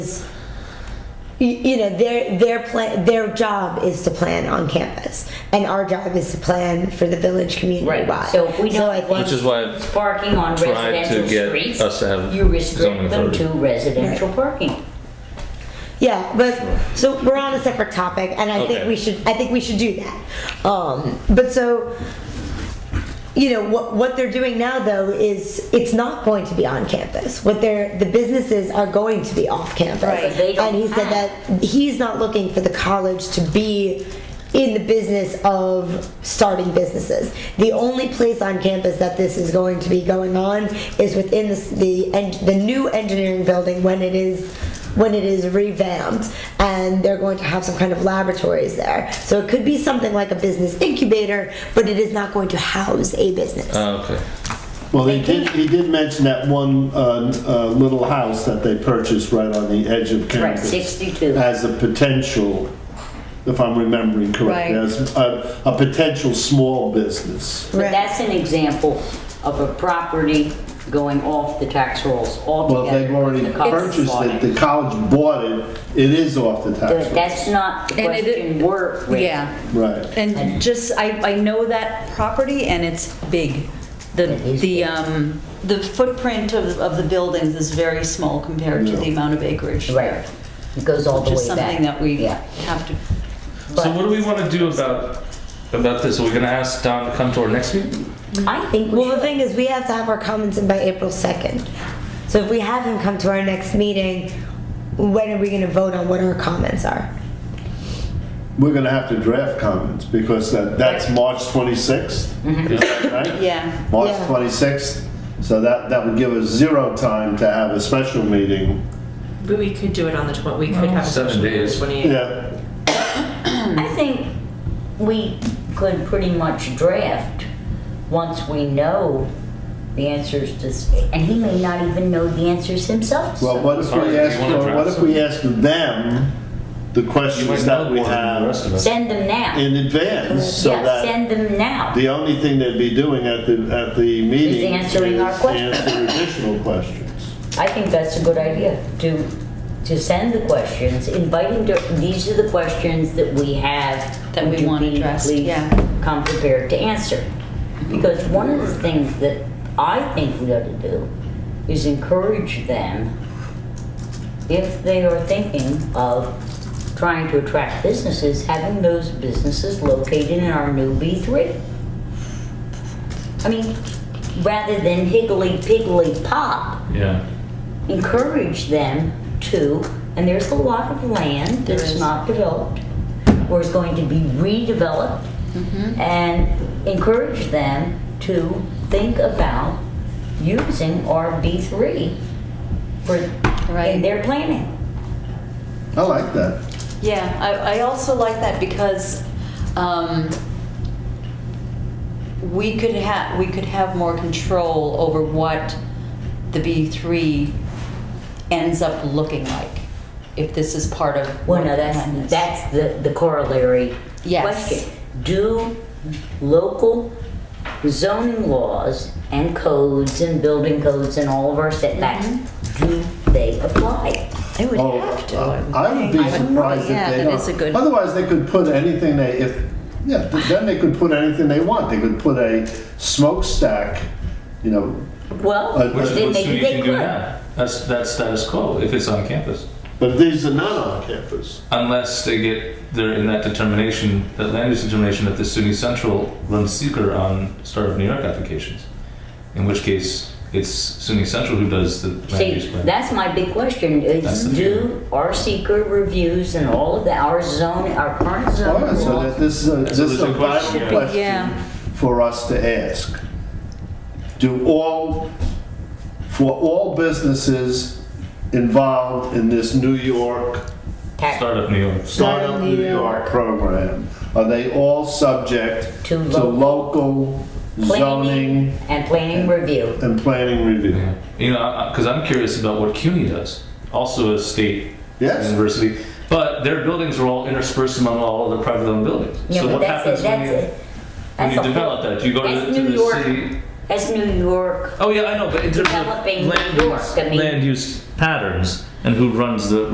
is, you, you know, their, their plan, their job is to plan on campus. And our job is to plan for the village community Right, wide. so if we I don't think- want Which is why I've parking on tried to residential get us streets, to have you zoning restrict them authority. to residential parking. Yeah, but, so we're on a separate topic and I think Okay. we should, I think we should do that. Um, but so, you know, what, what they're doing now though is, it's not going to be on campus. What they're, the businesses are going to be off campus. Right. They don't And he said have- that he's not looking for the college to be in the business of starting businesses. The only place on campus that this is going to be going on is within the, s- the, en- the new engineering building when it is, when it is revamped. And they're going to have some kind of laboratories there. So it could be something like a business incubator, but it is not going to house a business. Oh, okay. Well, he did, he did mention that one uh, uh, little house that they purchased right on the edge of Right, campus. 62. As a potential, if I'm remembering correctly, Right. as a, a potential small business. So that's an example of a property going off the tax rolls Well, altogether. they've already The college purchased bought it, the college bought it, it is off the tax But roll. That's not the And it- question we're raising. Yeah, Right. and just, I, I know that property and it's big. The, is the, um, the footprint of, of the buildings is very small compared to the Yeah. amount of acreage. Right, it goes all the way back. Just something that we Yeah. have to, So what do we want to do about about this? Are we going to ask Don to come to our next meeting? I think we Well, should the thing is, we have to have our comments in by April 2nd. So if we have him come to our next meeting, when are we going to vote on what our comments are? We're gonna have to draft comments because that, that's March 26th. Is that right? yeah. March Yeah. 26th, so that, that would give us zero time to have a special meeting. But we could do it on the twen, we could have a Seven special meeting on the days. twenty-eighth. Yeah. Hmm. I think we could pretty much draft once we know the answers to, s- and he may not even know the answers himself. to Well, some. what if Sorry, we do ask, you wanna well, what draft if we ask them the You might questions that know we more than the rest of have us. Send them now. in advance? So Yeah, that send them now. the only thing they'd be doing at the, at the meeting is answering our questions. answer additional questions. I think that's a good idea, to, to send the questions, invite him to, these are the questions that we have. That we Would you want please- addressed, please yeah. Come prepared to answer. Because one of the things that I think we ought to do is encourage them, if they are thinking of trying to attract businesses, having those businesses located in our new B three. I mean, rather than higgly piggly pop, Yeah. encourage them to, and there's a lot of land that's not developed or is going to be redeveloped, and encourage them to think about using RB3 for, in Right. their planning. I like that. Yeah, I, I also like that because, um, we could have, we could have more control over what the B three ends up looking like, if this is part of. Well, no, what the that's, plan is. that's the, the corollary Yes. question. Do local zoning laws and codes and building codes and all of our setbacks, do they apply? They would Oh, have to. I I would be surprised if yeah, they that is a don't. good- Otherwise, they could put anything they, if, yeah, th- then they could put anything they want. They could put a smokestack, you know, Well, Uh, Which is they, what they, they you can could. do now. That's that's status quo if it's on campus, but these are not on campus. unless they get they're in that determination, that land use determination that the SUNY Central runs seeker on Star of New York applications, in which case it's SUNY Central who does the land use See, plan. that's my big question That's is the do our seeker reviews and all of the, our zone, our current All zone right, so laws that this is a, this is a Resolution question, yeah. vital Yeah. question for us to ask. Do all, for all businesses involved in this New York, tax Startup New York. Startup New York program, are they all subject To to local planning zoning and planning review. and planning review? Yeah. You know, because I'm curious about what CUNY does, also a state Yes. university, but their buildings are all interspersed among all other private owned buildings. Yeah, so but what that's happens it, when that's you, it. when That's you a develop whole- that? Do you go to that's the, to New the York. city? That's New York Oh yeah, I know, but in terms of developing land New York. use, I mean- land use patterns and who runs the